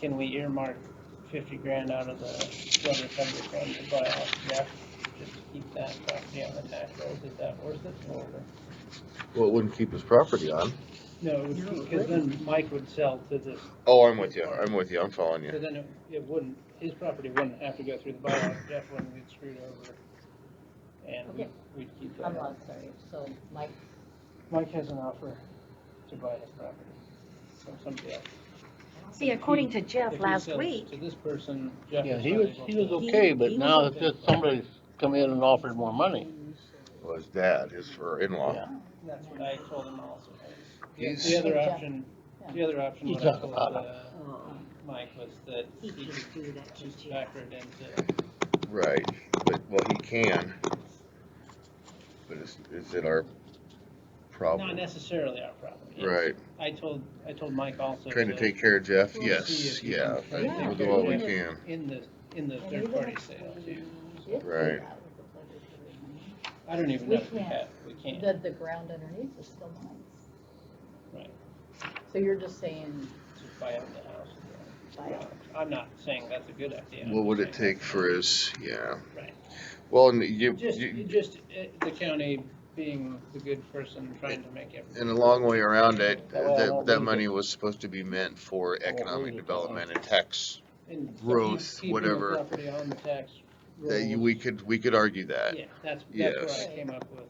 can we earmark fifty grand out of the flood recovery fund to buy off Jeff? Just to keep that property on the tax rolls, is that worth it or? Well, it wouldn't keep his property on. No, because then Mike would sell to this, Oh, I'm with you, I'm with you, I'm following because you. then it, it wouldn't, his property wouldn't have to go through the bylaw, Jeff wouldn't get screwed over. And we- Okay. we'd keep I'm that. not sorry, so Mike, Mike has an offer to buy his property from somebody else. See, according to If Jeff he last sells week, To this person, Jeff Yeah, is he not was, able he to- was okay, but He- he now was it's okay. just somebody's come in and offered more money. Well, his dad, his her in-law. Yeah. That's what I told him also. The He's- the other Yeah. option, the other option, You what I talk told, about uh, Mike was that he he can could do that to just Jeff. factor it into, Right, but, well, he can. But is, is it our not problem? necessarily our problem. It's- Right, I told, I told Mike also. trying to take care of Jeff, yes, see if you can yeah, try to we'll take do care all of we Jeff can. In the, in the And third even party if sale we too. did do Right. that with the flood recovery money, I don't even We know if we can't. have, we can't. The, the ground underneath is still mine. Right. So you're just saying, Just buy out the house. Uh, buy out. I'm not saying that's a good idea. I'm What would it just saying- take for his, yeah. Right. Well, and you, Just, you, just uh, the county being the good person trying to make everything. And a long way around it, That way I that, won't that lose money was supposed to be meant for economic lose it. development and tax. And keep- growth, keeping the whatever, property on the tax That you, rolls. we could, we could argue that. Yeah, that's, that's yes. where I came up with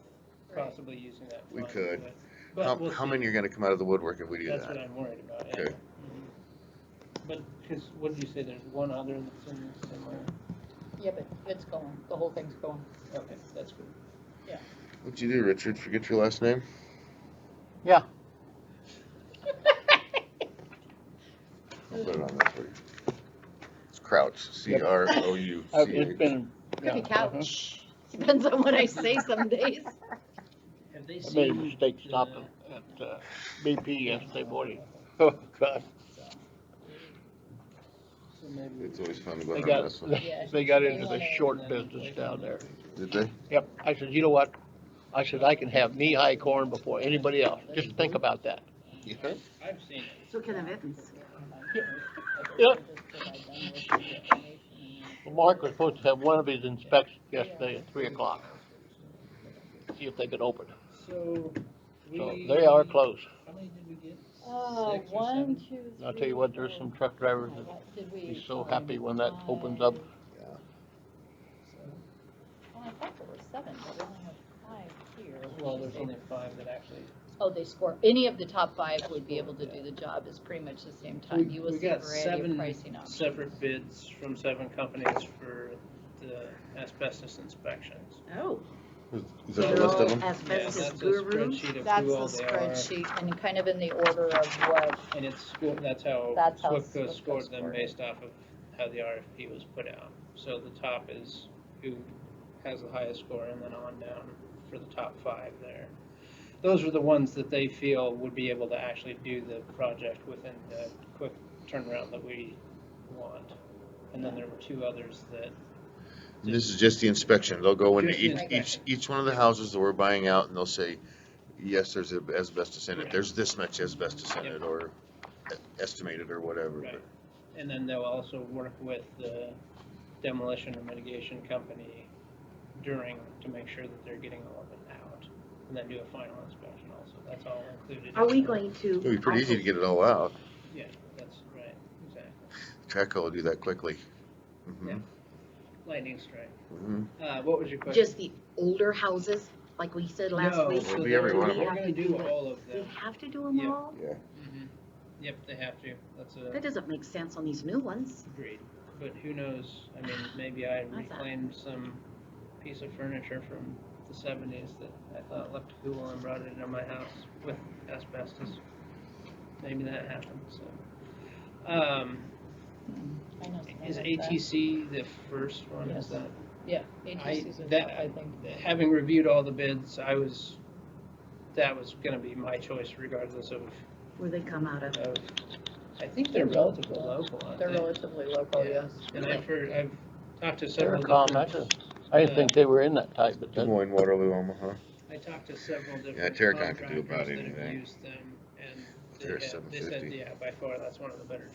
possibly using that We fund, could. but- But How, we'll how see. many are gonna come out of the woodwork if we do That's what that? I'm worried about, yeah. Okay. Mhm. But, cause what did you say, there's one other that's in this somewhere? yeah, but it's going, the whole thing's going. Okay, that's good. What'd you do, Richard? Forget your last name? I'll put it on there for you. It's Crouch, C R O U Uh, Oh, C It's H. been, Could be yeah, uh-huh. couch, depends on what I say some days. Have they uh-huh. I made a seen, mistake stopping at uh, BP yesterday morning. Oh, God, so maybe, It's always fun to go they on got, this one. they got into the short business down there. Did they? Yep, I said, you know what? I said, I can have knee-high corn before anybody else. Just think about that. Yeah. I've seen it, so can the Evans. Yeah. Mark was supposed to have one of his inspections yesterday at three o'clock. See if they could open. so we. So they are closed. How many did we get? Uh, Six or one, seven? two, three. I'll tell you what, there's some truck drivers that Did we? be so happy when that opens up. Well, I thought there were seven, but we only have five here. Well, there's only five that actually. Oh, they score, any of the top five would be able to do the job, it's pretty much the same time, you will We see a got variety of seven pricing options. separate bids from seven companies for the asbestos inspections. Oh. Is that the that a they're list all of them? Yeah, Asbestos that's a guru. spreadsheet of That's who the all they are, spreadsheet, and kind of in the order of what, and it's, sco- that's how That's how SWPCO SWPCO scored them scored it. based off of how the RFP was put out. So the top is who has the highest score, and then on down for the top five there. Those are the ones that they feel would be able to actually do the project within the quick turnaround that we want. And then there were two others that This is just the inspection. They'll go into Just the each, each, inspection. each one of the houses that we're buying out and they'll say, yes, there's asbestos in it. Correct. There's this much asbestos in Yep. it or e-, estimated or whatever. Right. And then they'll also work with the demolition and mitigation company during, to make sure that they're getting all of it out. And then do a final inspection also, that's all included. Are we in- going to? It'd be pretty easy to also- get it all out. Yeah, that's right, exactly. Traco will do that quickly. Mhm, Lightning strike. mhm. Uh, what was your question? Just the older houses, like we said last No, week. so It'll be they're- every one of They're them. gonna do all of They them. have to do them Yeah. all? Mhm. Yep, they have to, that's That a, doesn't make sense on these new ones. agreed. But who knows, I mean, maybe I thought- reclaimed some piece of furniture from the seventies that I thought looked cool and brought it into my house with asbestos. Maybe that happened, so. Um, I know. something is like that. ATC the first one, is Yes. that? Yeah, I- ATC's the that- top, I think. Having reviewed all the bids, I was, that was gonna be my choice regardless of, Where they come out of. of, I think they're relatively local, aren't They're they? relatively local, yes. And I've heard, I've talked to They're several. calm, I different- just, I didn't think they were in that type, but Des that, Moines, Waterloo, Omaha. I talked to several different. Yeah, Terracon could do about contractors that have anything. Used them, and they They're had- they said, 750. yeah, by far, that's one of the better